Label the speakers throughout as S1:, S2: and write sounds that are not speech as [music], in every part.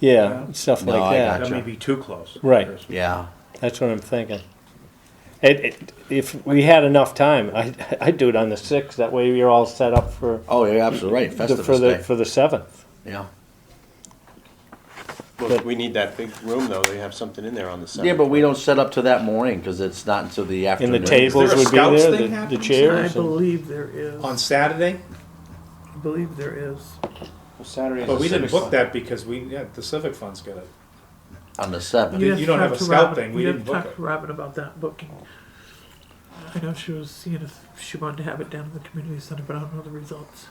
S1: yeah, stuff
S2: No,
S1: like
S2: I
S1: that.
S2: got
S3: That
S2: Gotcha.
S3: may be too close.
S1: Right.
S2: Yeah,
S1: That's what I'm thinking. It, it, if we had enough time, I, [laughs] I'd do it on the sixth, that way you're all set up for,
S2: oh, you're absolutely right,
S1: the- for
S2: Festivus
S1: the,
S2: Day,
S1: for the seventh.
S2: yeah.
S4: Well, we need that big room though, they have something in there on the side.
S2: Yeah, but we don't set up to that morning, cause it's not until the
S1: And
S2: afternoon.
S1: the tables
S4: there a
S1: would be
S4: scouts
S1: there,
S4: thing
S1: the- the
S4: happening?
S5: I
S1: chairs. and-
S5: believe there is,
S3: On Saturday,
S5: I believe there is.
S4: Saturday.
S3: but we didn't book that because we, yeah, the Civic Fund's got it.
S2: On the seventh,
S3: You
S5: have to
S3: don't
S5: talk
S3: have a
S5: to
S3: scout
S5: Robin-
S3: thing, we
S5: you have
S3: didn't
S5: to
S3: book
S5: Talk
S3: it.
S5: to Robin about that booking. I know she was seeing if she wanted to have it down in the community center, but I don't know the results.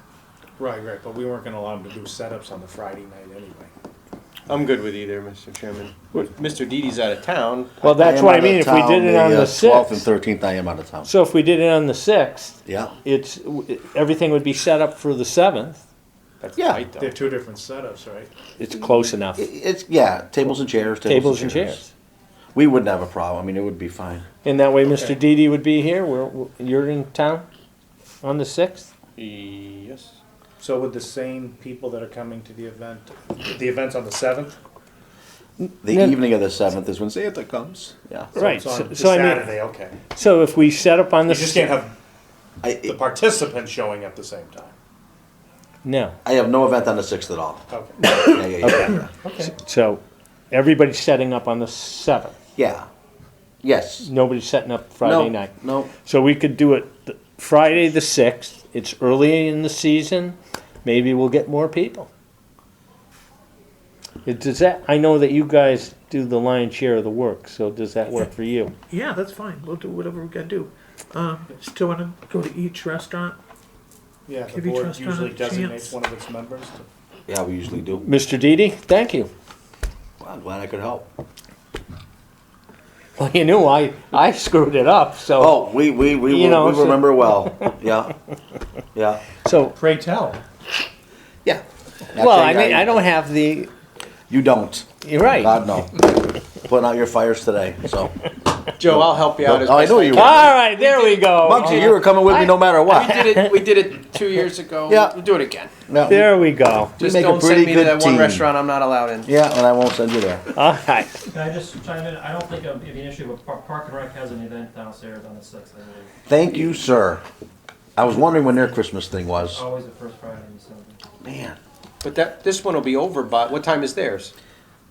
S3: Right, right, but we weren't gonna allow them to do setups on the Friday night anyway.
S4: I'm good with either, Mr. Chairman. Mr. Didi's out of town.
S1: Well, that's
S2: am
S1: what I
S2: out of
S1: mean, if we
S2: town
S1: did it on
S2: uh,
S1: the
S2: 12th and
S1: sixth,
S2: 13th, I am out of town.
S1: so if we did it on the sixth,
S2: Yeah.
S1: it's, everything would be set up for the seventh.
S4: That's
S2: Yeah.
S4: tight though.
S3: They're two different setups, right?
S1: It's close enough,
S2: It- It's, yeah, tables and chairs.
S1: tables and chairs.
S2: We wouldn't have a problem. I mean, it would be fine.
S1: And that way Mr.
S3: Okay.
S1: Didi would be here, we're, we're- you're in town on the sixth?
S4: Yes.
S3: So would the same people that are coming to the event, the event's on the seventh?
S2: The
S1: No.
S2: evening of the 7th is when Santa comes. Yeah.
S1: Right,
S3: It's on
S1: so so I mean,
S3: Saturday, okay.
S1: so if we set up on the.
S3: You just can't have the
S2: I,
S3: participants showing up the same time.
S1: No,
S2: I have no event on the 6th at all.
S3: Okay.
S2: Yeah, yeah, yeah. yeah.
S3: Okay.
S1: so everybody's setting up on the seventh.
S2: yeah. Yes.
S1: Nobody's setting up Friday
S2: no,
S1: night.
S2: No.
S1: So we could do it th- Friday the 6th. It's early in the season. Maybe we'll get more people. It, does that, I know that you guys do the lion's share of the work, so does that work for you?
S5: Yeah, that's fine. We'll do whatever we gotta do. Um, still wanna go to each restaurant?
S3: Yeah, the
S5: Give each
S3: board
S5: restaurant
S3: usually
S5: a
S3: designates
S5: chance.
S3: one of its members to
S2: Yeah, we usually do.
S1: Mr. Didi, thank you. [laughs]
S2: Well, I'm glad I could help.
S1: Well, you knew I, I screwed it up, so.
S2: Oh, we, we, we,
S1: You
S2: will-
S1: know,
S2: we
S1: so-
S2: remember
S1: [laughs]
S2: well. Yeah. Yeah.
S1: So,
S3: Pray tell.
S2: Yeah.
S1: well, I mean, I don't have the,
S2: You don't.
S1: you're right. All
S2: God, no. Putting out your fires today,
S1: [laughs]
S2: so.
S4: Joe, I'll help you out as
S2: Oh, I
S4: best
S2: know you were.
S1: right, there we go.
S2: Muggsy, you were coming with me no matter
S4: We
S2: what.
S4: did it, we did it two years ago.
S2: [laughs] Yeah.
S4: We'll do it again.
S2: No, we-
S1: [laughs] There we go.
S4: Just
S2: make a
S4: don't
S2: pretty
S4: send me to
S2: good
S4: that one
S2: team.
S4: restaurant I'm not allowed in.
S2: Yeah, and I won't send you there.
S1: All right.
S6: Can I just chime in? I don't think it'd be an issue, but Par- Park and Rec has an event downstairs on the sixth, I believe.
S2: Thank you, sir. I was wondering when their Christmas thing
S1: Oh,
S2: was.
S6: Always the first Friday in December.
S2: Man,
S4: But that, this one will be over by, what time is theirs?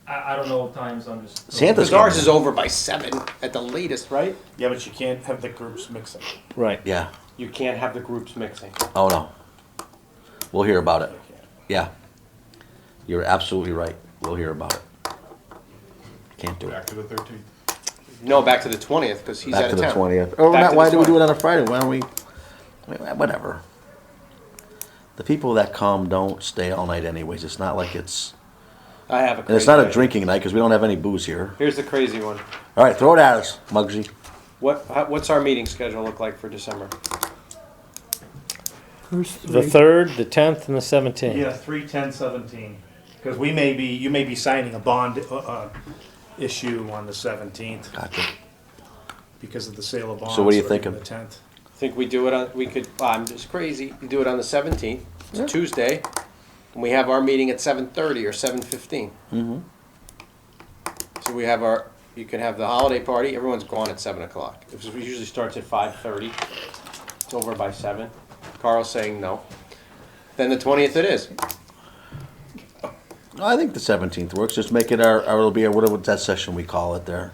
S6: I, I don't know times, I'm just.
S2: Santa's
S4: Cause ours is over by seven at the latest, right?
S3: Yeah, but you can't have the groups mixing.
S1: Right.
S2: yeah.
S4: You can't have the groups mixing.
S2: Oh no. We'll hear about it. Yeah. You're absolutely right. We'll hear about it. Can't do it.
S7: Back to the thirteenth.
S4: No, back to the twentieth, cause he's
S2: Back
S4: out
S2: to
S4: of
S2: the
S4: town.
S2: twentieth. Oh,
S4: Back
S2: not,
S4: to
S2: why
S4: the
S2: do we do it on a Friday? Why don't we? Whatever. The people that come don't stay all night anyways. It's not like it's,
S4: I have a
S2: and
S4: crazy
S2: it's not a
S4: one.
S2: drinking night because we don't have any booze here.
S4: Here's the crazy one.
S2: All right, throw it at us, Muggsy.
S4: What, how- what's our meeting schedule look like for December?
S5: First
S1: The
S5: three.
S1: third, the tenth, and the seventeenth.
S3: Yeah, three, ten, seventeen. Because we may be, you may be signing a bond uh, uh, issue on the seventeenth
S2: Gotcha.
S3: because of the sale of bonds.
S2: So what are you
S3: or
S2: thinking?
S3: The tenth.
S4: Think we do it on, we could, I'm just crazy, you do it on the seventeenth, it's a Tuesday, and we have our meeting at seven thirty or seven fifteen. So we have our, you can have the holiday party, everyone's gone at seven o'clock. It was- it usually starts at five thirty, it's over by seven. Carl's saying no. Then the twentieth it is.
S2: No, I think the seventeenth works. Just make it our, our it'll be our whatever that session we call it there.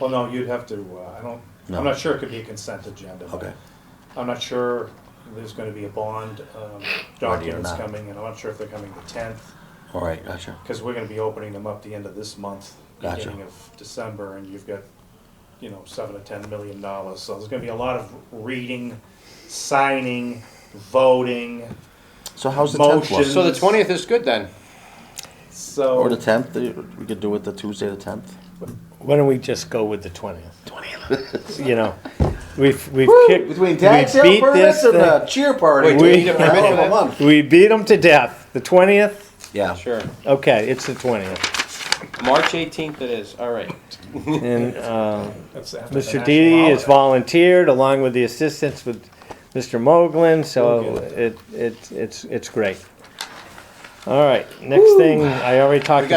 S3: Well, no, you'd have to, uh, I don't,
S2: No.
S3: I'm not sure it could be a consent agenda. but
S2: Okay.
S3: I'm not sure there's going to be a bond um, documents
S2: not.
S3: coming, and I'm not sure if they're coming the tenth.
S2: All right, gotcha.
S3: Because we're gonna be opening them up the end of this month,
S2: Gotcha.
S3: beginning of December, and you've got, you know, seven to ten million dollars, so there's gonna be a lot of reading, signing, voting,
S2: So how's the tenth
S3: Motion.
S2: one?
S4: So the twentieth is good then.
S3: so.
S2: Or the tenth? We could do it the Tuesday, the tenth.
S1: Why don't we just go with the twentieth? Twentieth. you
S4: [laughs]
S1: know, we've we've kicked
S2: Between
S1: we
S2: tax sale
S1: beat this
S2: permits and
S1: thing-
S2: the cheer party.
S4: Wait, do we need a permit for that?
S1: we beat them to death. The twentieth.
S2: Yeah.
S4: Sure.
S1: Okay, it's the
S4: [laughs]
S1: twentieth.
S4: March eighteenth it is, all right.
S1: And uh,
S3: That's after the
S1: Mr.
S3: national
S1: Didi has
S3: holiday.
S1: volunteered along with the assistance with Mr. Moglen, so
S3: Okay.
S1: it, it it's it's great. All right, next thing I already talked
S4: We got